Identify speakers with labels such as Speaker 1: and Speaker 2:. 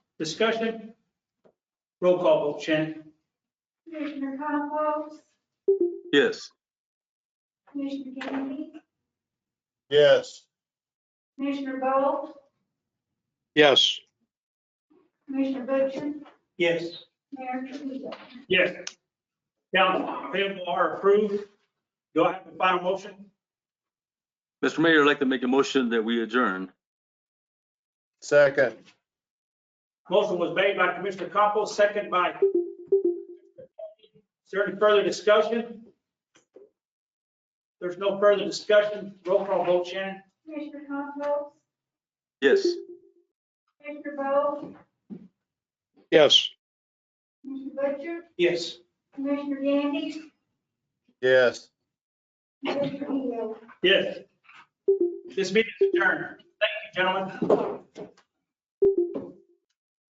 Speaker 1: Discussion? Roll call vote, Shannon.
Speaker 2: Commissioner Compost,
Speaker 3: Yes.
Speaker 2: Commissioner Gandy,
Speaker 4: Yes.
Speaker 2: Commissioner Bolt,
Speaker 3: Yes.
Speaker 2: Commissioner Butcher,
Speaker 1: Yes.
Speaker 2: Mayor Trujillo.
Speaker 1: Yes. Down, payable are approved. Do I have a final motion?
Speaker 3: Mr. Mayor, I'd like to make a motion that we adjourn.
Speaker 4: Second.
Speaker 1: Motion was made by Commissioner Compost, second by. Is there any further discussion? There's no further discussion. Roll call vote, Shannon.
Speaker 2: Commissioner Compost,
Speaker 3: Yes.
Speaker 2: Commissioner Bolt,
Speaker 3: Yes.
Speaker 2: Commissioner Butcher,
Speaker 1: Yes.
Speaker 2: Commissioner Gandy,
Speaker 4: Yes.
Speaker 2: Mayor Trujillo.
Speaker 1: Yes. This meeting is adjourned. Thank you, gentlemen.